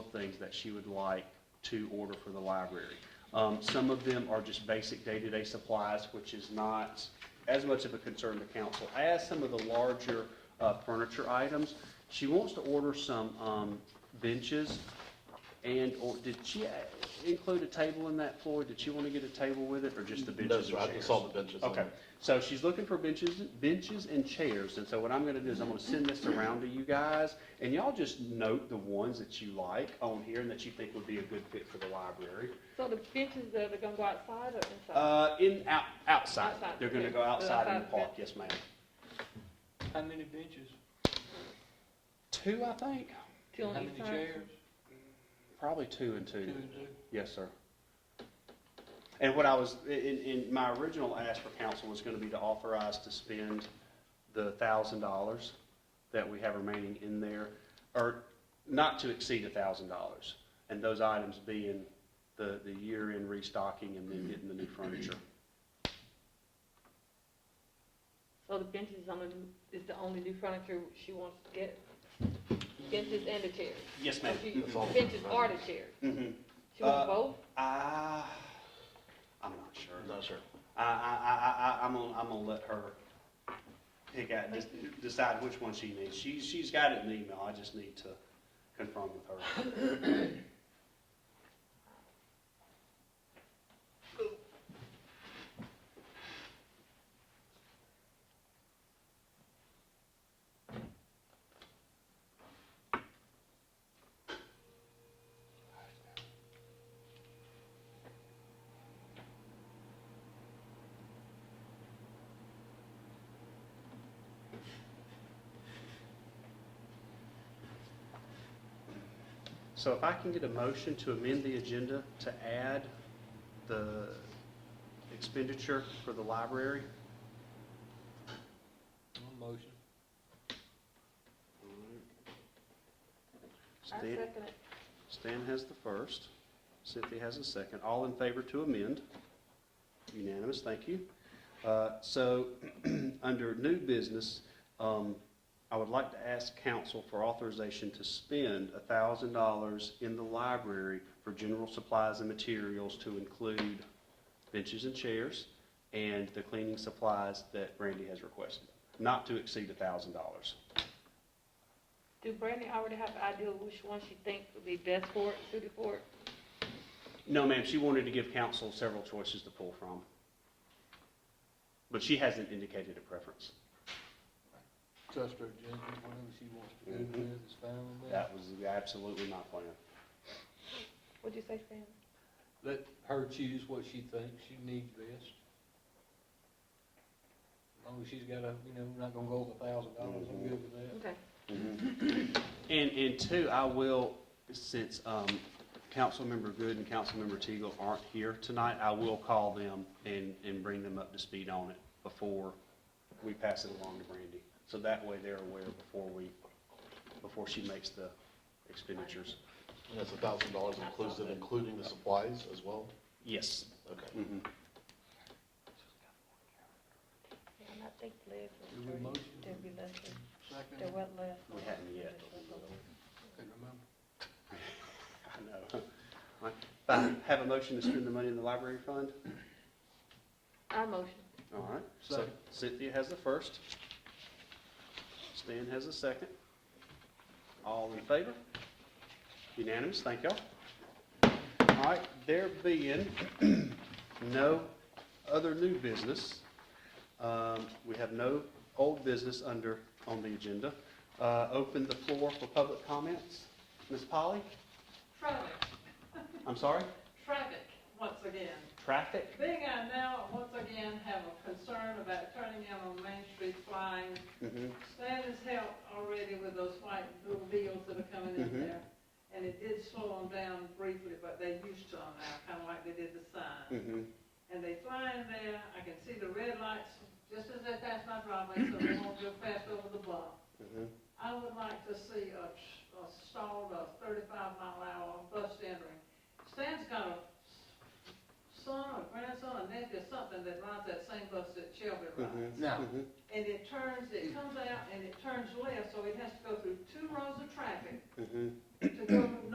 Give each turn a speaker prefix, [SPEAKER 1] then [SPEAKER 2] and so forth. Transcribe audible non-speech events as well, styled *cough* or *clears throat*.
[SPEAKER 1] things that she would like to order for the library. Um, Some of them are just basic day-to-day supplies, which is not as much of a concern to council as some of the larger uh, furniture items. She wants to order some um, benches and, or did she uh, include a table in that, Floyd? Did she want to get a table with it or just the benches
[SPEAKER 2] No,
[SPEAKER 1] and
[SPEAKER 2] sir,
[SPEAKER 1] chairs?
[SPEAKER 2] I saw the benches.
[SPEAKER 1] Okay, so she's looking for benches, benches and chairs, and so what I'm gonna do is I'm gonna send this around to you guys, and y'all just note the ones that you like on here and that you think would be a good fit for the library.
[SPEAKER 3] So the benches, they're, they're gonna go outside or inside?
[SPEAKER 1] Uh, in, out, outside,
[SPEAKER 3] Outside,
[SPEAKER 1] they're gonna
[SPEAKER 3] okay.
[SPEAKER 1] go outside in the
[SPEAKER 3] Outside,
[SPEAKER 1] park, yes ma'am.
[SPEAKER 4] How many benches?
[SPEAKER 1] Two, I think,
[SPEAKER 3] Two
[SPEAKER 4] How
[SPEAKER 3] on
[SPEAKER 4] many
[SPEAKER 3] each side?
[SPEAKER 4] chairs?
[SPEAKER 1] probably two and
[SPEAKER 4] Two
[SPEAKER 1] two,
[SPEAKER 4] and two.
[SPEAKER 1] yes, sir. And what I was, in, in, my original ask for council was gonna be to authorize to spend the thousand dollars that we have remaining in there, or not to exceed a thousand dollars. And those items being the, the year-end restocking and then getting the new furniture.
[SPEAKER 3] So the benches is only, is the only new furniture she wants to get? Benches and the chairs?
[SPEAKER 1] Yes,
[SPEAKER 3] So
[SPEAKER 1] ma'am.
[SPEAKER 3] she-
[SPEAKER 2] That's all.
[SPEAKER 3] Benches are the chairs?
[SPEAKER 1] Mhm.
[SPEAKER 3] She wants
[SPEAKER 1] Uh,
[SPEAKER 3] both?
[SPEAKER 1] I, I'm not sure.
[SPEAKER 2] No, sir.
[SPEAKER 1] I, I, I, I, I'm gonna, I'm gonna let her pick out, just decide which one she needs. She, she's got it in the email, I just need to confirm with her. So if I can get a motion to amend the agenda to add the expenditure for the library,
[SPEAKER 4] One motion.
[SPEAKER 3] I
[SPEAKER 1] Stan,
[SPEAKER 3] second it.
[SPEAKER 1] Stan has the first, Cynthia has the second. All in favor to amend? Unanimous, thank you. Uh, So, *clears throat* under new business, um, I would like to ask council for authorization to spend $1,000 in the library for general supplies and materials to include benches and chairs and the cleaning supplies that Brandy has requested, not to exceed $1,000.
[SPEAKER 3] Do Brandy already have an idea of which one she thinks would be best for it, suited for it?
[SPEAKER 1] No, ma'am, she wanted to give council several choices to pull from. But she hasn't indicated a preference.
[SPEAKER 4] Trust her judgment, whatever she wants to
[SPEAKER 1] Mhm.
[SPEAKER 4] do with is fine with me.
[SPEAKER 1] That was absolutely my plan.
[SPEAKER 3] What'd you say, Stan?
[SPEAKER 4] Let her choose what she thinks she needs best. As long as she's got a, you know, we're not gonna go over a thousand dollars, I'm good with that.
[SPEAKER 3] Okay.
[SPEAKER 1] And, and two, I will, since um, Councilmember Good and Councilmember Teagle aren't here tonight, I will call them and, and bring them up to speed on it before we pass it along to Brandy. So that way they're aware before we, before she makes the expenditures.
[SPEAKER 2] And that's a thousand dollars inclusive, including the supplies as well?
[SPEAKER 1] Yes.
[SPEAKER 2] Okay.
[SPEAKER 1] Mhm.
[SPEAKER 3] Yeah, and I think Les
[SPEAKER 4] Do
[SPEAKER 3] was
[SPEAKER 4] we
[SPEAKER 3] thirty.
[SPEAKER 4] motion?
[SPEAKER 3] There'd be less, than- there
[SPEAKER 4] Second,
[SPEAKER 3] was less.
[SPEAKER 1] We haven't yet.
[SPEAKER 4] could remember.
[SPEAKER 1] I know. *laughs* All right. Uh, Have a motion to spend the money in the library fund?
[SPEAKER 3] I motion.
[SPEAKER 1] All right, so
[SPEAKER 4] Second.
[SPEAKER 1] Cynthia has the first. Stan has the second. All in favor? Unanimous, thank y'all. All right, there being *clears throat* no other new business, um, we have no old business under, on the agenda. Uh, Open the floor for public comments. Ms. Polly,
[SPEAKER 5] Traffic,
[SPEAKER 1] I'm sorry,
[SPEAKER 5] traffic, once again.
[SPEAKER 1] traffic?
[SPEAKER 5] Being I now, once again, have a concern about turning in on Main Street flying.
[SPEAKER 1] Mhm.
[SPEAKER 5] Stan has helped already with those white little deals that are coming
[SPEAKER 1] Mhm.
[SPEAKER 5] in there. And it did slow them down briefly, but they used to them now, kind of like they did the sign.
[SPEAKER 1] Mhm.
[SPEAKER 5] And they fly in there, I can see the red lights just as they pass my driveway, so they won't go fast over the bump.
[SPEAKER 1] Mhm.
[SPEAKER 5] I would like to see a, a stalled, a thirty-five mile an hour bus entering. Stan's got a son, a grandson, a nephew, something that rides that same bus that Shelby rides.
[SPEAKER 1] Mhm.
[SPEAKER 4] Now,
[SPEAKER 1] Mhm.
[SPEAKER 5] And it turns, it comes out and it turns left, so it has to go through two rows of traffic
[SPEAKER 1] Mhm.
[SPEAKER 5] to go